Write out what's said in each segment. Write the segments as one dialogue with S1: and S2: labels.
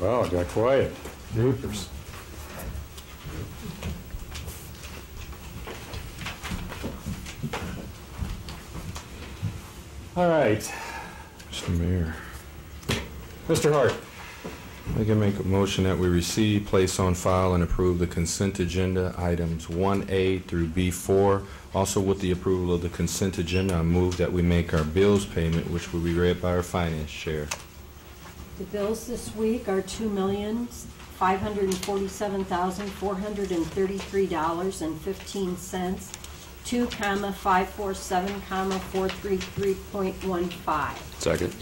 S1: Wow, it got quiet. Jeepers. All right,
S2: Mr. Mayor,
S1: Mr. Hart.
S2: I can make a motion that we receive, place on file, and approve the consent agenda items 1A through B4. Also, with the approval of the consent agenda, I move that we make our bills payment, which will be read by our finance chair.
S3: The bills this week are two million, five hundred and forty-seven thousand, four hundred and thirty-three dollars and fifteen cents, two comma, five four seven comma, four three three point one five.
S4: Second.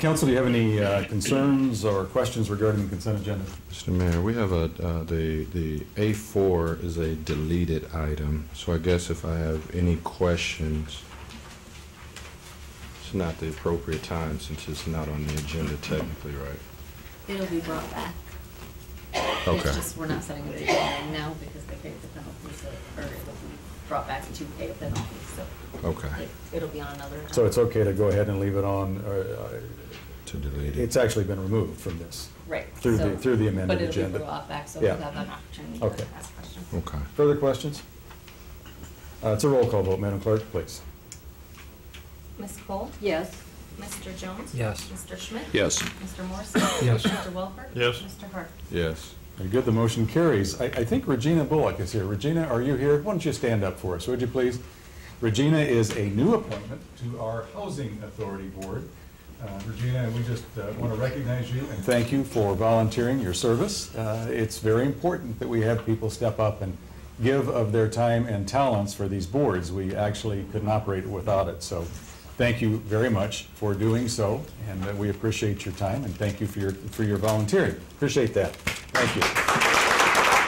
S1: Council, do you have any uh, concerns or questions regarding the consent agenda?
S2: Mr. Mayor, we have a, uh, the, the A4 is a deleted item, so I guess if I have any questions, it's not the appropriate time since it's not on the agenda technically, right?
S5: It'll be brought back.
S2: Okay.
S5: It's just, we're not setting a date right now because they paid the penalty, so, or it'll be brought back to pay a penalty, so
S2: Okay,
S5: it- it'll be on another.
S1: So it's okay to go ahead and leave it on, or,
S2: to
S1: uh,
S2: delete it.
S1: it's actually been removed from this.
S5: Right.
S1: through the-
S5: so-
S1: through the amended
S5: But it'll
S1: agenda.
S5: be brought back, so we'll
S1: Yeah.
S5: have an opportunity
S1: Okay.
S5: to ask questions.
S2: Okay.
S1: Further questions? Uh, It's a roll call vote, Madam Clerk, please.
S6: Ms. Cole?
S3: Yes,
S6: Mr. Jones?
S7: Yes.
S6: Mr. Schmidt?
S4: Yes.
S6: Mr. Morrissey?
S7: Yes.
S6: Mr. Welper?
S4: Yes.
S6: Mr. Hart?
S2: Yes.
S1: Very good, the motion carries. I, I think Regina Bullock is here. Regina, are you here? Why don't you stand up for us, would you please? Regina is a new appointment to our Housing Authority Board. Uh, Regina, we just want to recognize you and thank you for volunteering your service. Uh, It's very important that we have people step up and give of their time and talents for these boards. We actually couldn't operate without it, so thank you very much for doing so, and uh, we appreciate your time, and thank you for your, for your volunteering. Appreciate that. Thank you.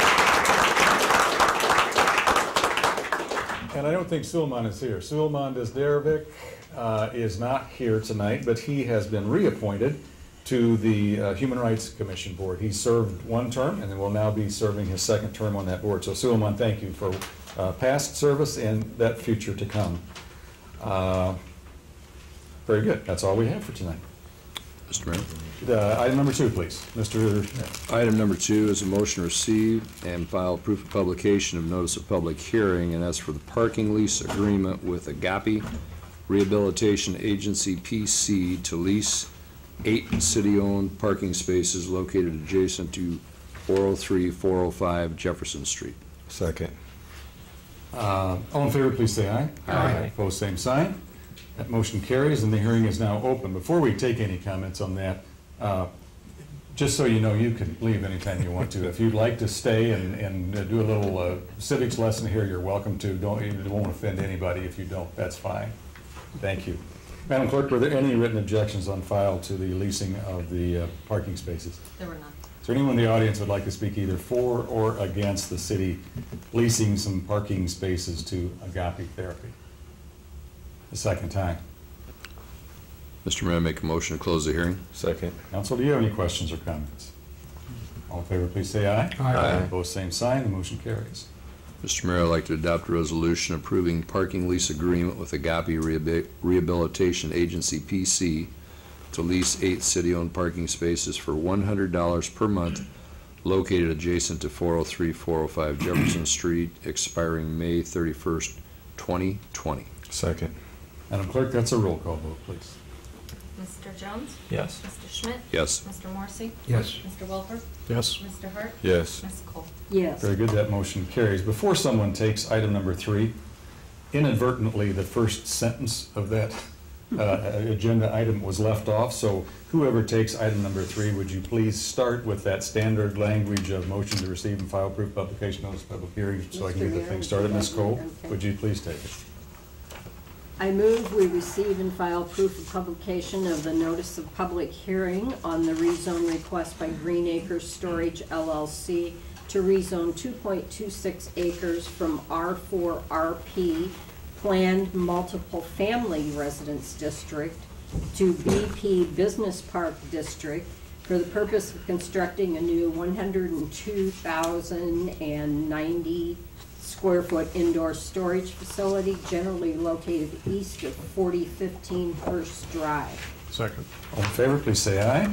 S1: And I don't think Sulman is here. Sulman Desderovic uh, is not here tonight, but he has been reappointed to the uh, Human Rights Commission Board. He served one term and then will now be serving his second term on that board. So Sulman, thank you for uh, past service and that future to come. Uh, Very good. That's all we have for tonight.
S4: Mr. Mayor.
S1: Uh, Item number two, please. Mr.
S4: Item number two is a motion to receive and file proof of publication of notice of public hearing, and that's for the parking lease agreement with Agape Rehabilitation Agency PC to lease eight city-owned parking spaces located adjacent to 403, 405 Jefferson Street.
S2: Second.
S1: Uh, All in favor, please say aye. Aye. Opposed, same sign. That motion carries, and the hearing is now open. Before we take any comments on that, uh, just so you know, you can leave anytime you want to. If you'd like to stay and and uh, do a little uh, civics lesson here, you're welcome to. Don't, it won't offend anybody if you don't, that's fine. Thank you. Madam Clerk, were there any written objections on file to the leasing of the uh, parking spaces?
S5: There were none.
S1: Is there anyone in the audience who would like to speak either for or against the city leasing some parking spaces to Agape Therapy? The second time.
S4: Mr. Mayor, make a motion to close the hearing.
S2: Second.
S1: Council, do you have any questions or comments? All in favor, please say aye.
S7: Aye.
S1: Opposed, same sign. The motion carries.
S4: Mr. Mayor, I'd like to adopt a resolution approving parking lease agreement with Agape Rehabi- Rehabilitation Agency, PC, to lease eight city-owned parking spaces for $100 per month located adjacent to 403, 405 Jefferson Street, expiring May 31st, 2020.
S2: Second.
S1: Madam Clerk, that's a roll call vote, please.
S6: Mr. Jones?
S7: Yes.
S6: Mr. Schmidt?
S4: Yes.
S6: Mr. Morrissey?
S7: Yes.
S6: Mr. Welper?
S7: Yes.
S6: Mr. Hart?
S2: Yes.
S6: Ms. Cole?
S3: yes.
S1: Very good, that motion carries. Before someone takes item number three, inadvertently, the first sentence of that uh, agenda item was left off, so whoever takes item number three, would you please start with that standard language of motion to receive and file proof publication notice of public hearing, so I can get the thing started. Ms. Cole, would you please take it?
S3: I move we receive and file proof of publication of the notice of public hearing on the rezone request by Green Acres Storage LLC to rezone 2.26 acres from R4RP Planned Multiple Family Residence District to BP Business Park District for the purpose of constructing a new 102,090 square foot indoor storage facility generally located east of 4015 Hearst Drive.
S1: All in favor, please say aye.